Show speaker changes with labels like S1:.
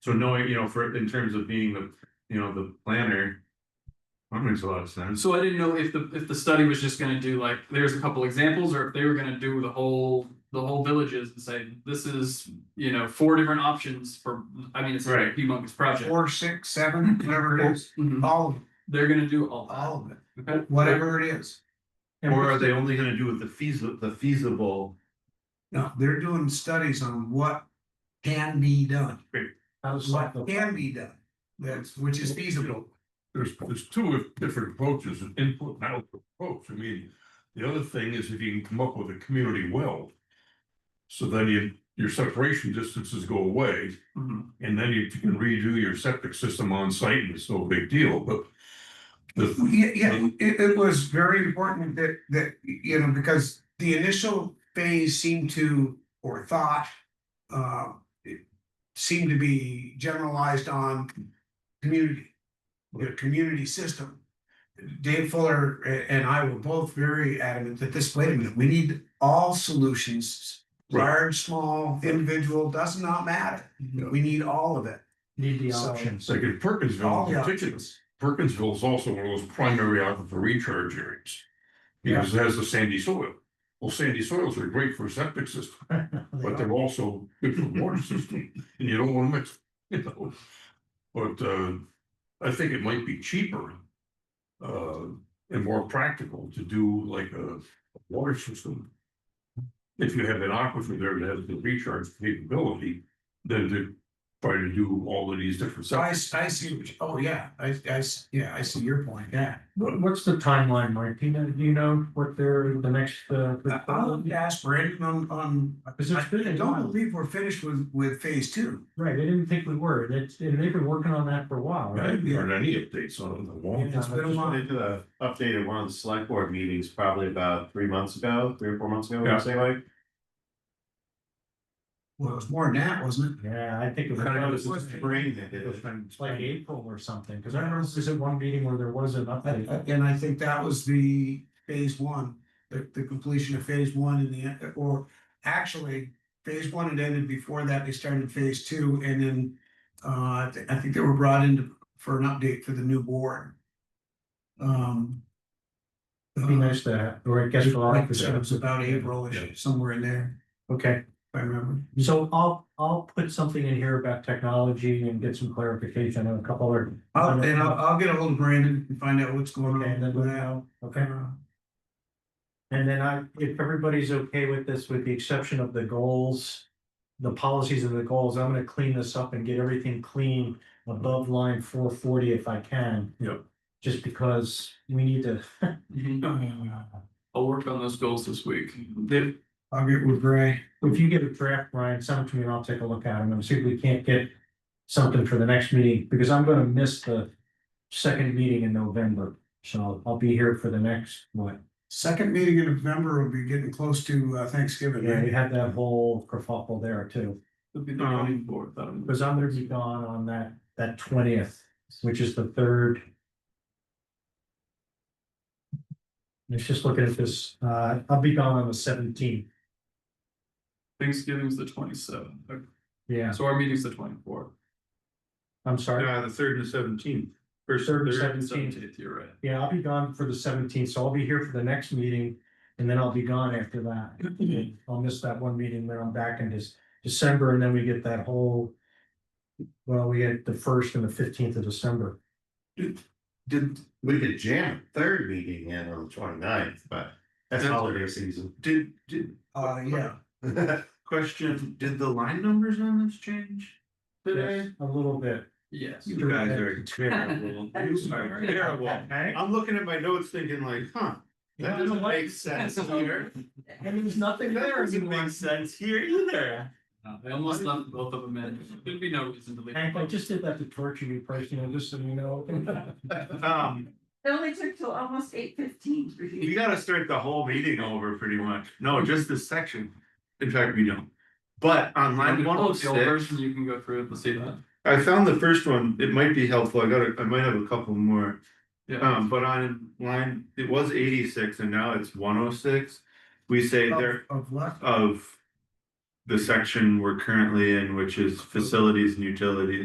S1: So knowing, you know, for, in terms of being the, you know, the planner. That makes a lot of sense.
S2: So I didn't know if the, if the study was just gonna do like, there's a couple examples, or if they were gonna do the whole, the whole villages and say, this is, you know, four different options for, I mean, it's a
S1: Right.
S2: humongous project.
S3: four, six, seven, whatever it is,
S2: Mhm.
S3: all of it,
S2: They're gonna do all that.
S3: all of it,
S2: Okay.
S3: whatever it is.
S1: Or are they only gonna do with the feasible, the feasible?
S3: No, they're doing studies on what can be done,
S4: How's
S3: what can be done, that's, which is feasible.
S5: There's, there's two different approaches, an input and output approach. I mean, the other thing is if you can come up with a community well. So then you, your separation distances go away
S2: Mhm.
S5: and then you can redo your septic system on site and it's no big deal, but. The,
S3: Yeah, yeah, it, it was very important that, that, you know, because the initial phase seemed to, or thought, uh, it seemed to be generalized on community, the community system. Dave Fuller a- and I were both very adamant that this, wait a minute, we need all solutions, large, small, individual, does not matter.
S5: Yeah.
S3: We need all of it.
S4: Need the
S3: So-
S4: options.
S5: like in Perkinsville
S3: All
S5: in
S3: the
S5: particular,
S3: options.
S5: Perkinsville is also one of those primary aquifer recharge areas. Because it has the sandy soil. Well, sandy soils are great for septic system. but they're also good for the water system, and you don't wanna mix, you know. But uh, I think it might be cheaper. Uh, and more practical to do like a water system. If you have an aquifer there that has the recharge capability, then to try to do all of these different
S3: So I,
S5: sites.
S3: s- I see, what you- oh, yeah, I, I, s- yeah, I see your point, yeah.
S4: What, what's the timeline, Mike? Do you know, do you know what they're, the next, uh?
S3: Uh, I'll ask Brandon on, on,
S4: Because
S3: I
S4: it's been
S3: I
S4: a
S3: don't
S4: while.
S3: believe we're finished with, with phase two.
S4: Right, I didn't think we were. That's, and they've been working on that for a while,
S5: I
S4: right?
S5: haven't heard any updates on the wall.
S3: It's been a
S1: They
S3: while.
S1: did a updated one of the select board meetings probably about three months ago, three or four months ago,
S5: Yeah.
S1: I'd say like.
S3: Well, it was more than that, wasn't
S4: Yeah, I think it was.
S1: I know this
S3: was
S1: is brain that did it.
S4: It's like April or something, because I remember there was at one meeting where there was an
S3: it?
S4: update.
S3: A- And I think that was the phase one, the, the completion of phase one in the, end, or actually, phase one had ended before that, they started phase two, and then uh, I thi- I think they were brought in to- for an update for the new board. Um. uh,
S4: It'd be nice to, have- or I guess.
S3: Like
S4: for all-
S3: I said, it was about April-ish, somewhere in there,
S4: Okay.
S3: if I remember.
S4: So I'll, I'll put something in here about technology and get some clarification on a couple of.
S3: I'll, Oh, and I'll, I'll get ahold of Brandon and find out what's going
S4: Okay,
S3: on
S4: then
S3: with
S4: we'll
S3: that.
S4: know. Okay, and then I, if everybody's okay with this, with the exception of the goals. The policies and the goals, I'm gonna clean this up and get everything clean above line four forty if I can.
S5: Yep.
S4: Just because we need to.
S2: Mhm.
S3: Uh,
S2: I'll work on those goals this week. They-
S3: I'll get with Gray.
S4: If you get a draft, Brian, send it to me and I'll take a look at it and see if we can't get something for the next meeting, because I'm gonna miss the second meeting in November. So I'll be here for the next, what?
S3: Second meeting in November will be getting close to uh, Thanksgiving.
S4: Yeah,
S3: right?
S4: we had that whole kerfuffle there too,
S2: It'll be the
S3: Um,
S2: county board, that I'm-
S4: because I'm gonna be gone on that, that twentieth, which is the third. Let's just look at this, uh, I'll be gone on the seventeenth,
S2: Thanksgiving's the twenty seventh,
S4: yeah,
S2: so our meeting's the twenty fourth.
S4: I'm sorry.
S1: Uh, the third and seventeenth.
S4: Third,
S2: Seventeenth, you're right.
S4: Yeah, I'll be gone for the seventeenth, so I'll be here for the next meeting, and then I'll be gone after that. I'll miss that one meeting, then I'm back in this December, and then we get that whole. Well, we get the first and the fifteenth of December.
S1: Did,
S6: We could jam third meeting in on the 29th, but that's
S1: That's-
S6: holiday season.
S1: did, did,
S3: Uh, yeah,
S1: question, did the line numbers on this change today?
S4: A little bit.
S2: Yes.
S1: You guys are terrible. You are terrible.
S4: Okay.
S1: I'm looking at my notes thinking like, huh, that doesn't make sense here.
S4: And there's nothing
S1: That
S4: there
S1: doesn't
S4: anymore.
S1: make sense here either.
S2: I almost left both of them in, there'd be no reason to leave.
S4: Hank, I just did that to torture you personally, just so you know.
S1: Um,
S7: It only took till almost eight fifteen for you.
S1: we gotta start the whole meeting over pretty much. No, just this section. In fact, we don't. But on
S2: I'm
S1: line
S2: gonna
S1: one oh
S2: close the old
S1: six,
S2: version, you can go through it and see that.
S1: I found the first one. It might be helpful. I got, a- I might have a couple more.
S2: Yeah.
S1: Um, but on line, it was eighty-six and now it's one oh six. We say
S2: Oh.
S3: of,
S1: there
S3: of what?
S1: of the section we're currently in, which is facilities and utilities.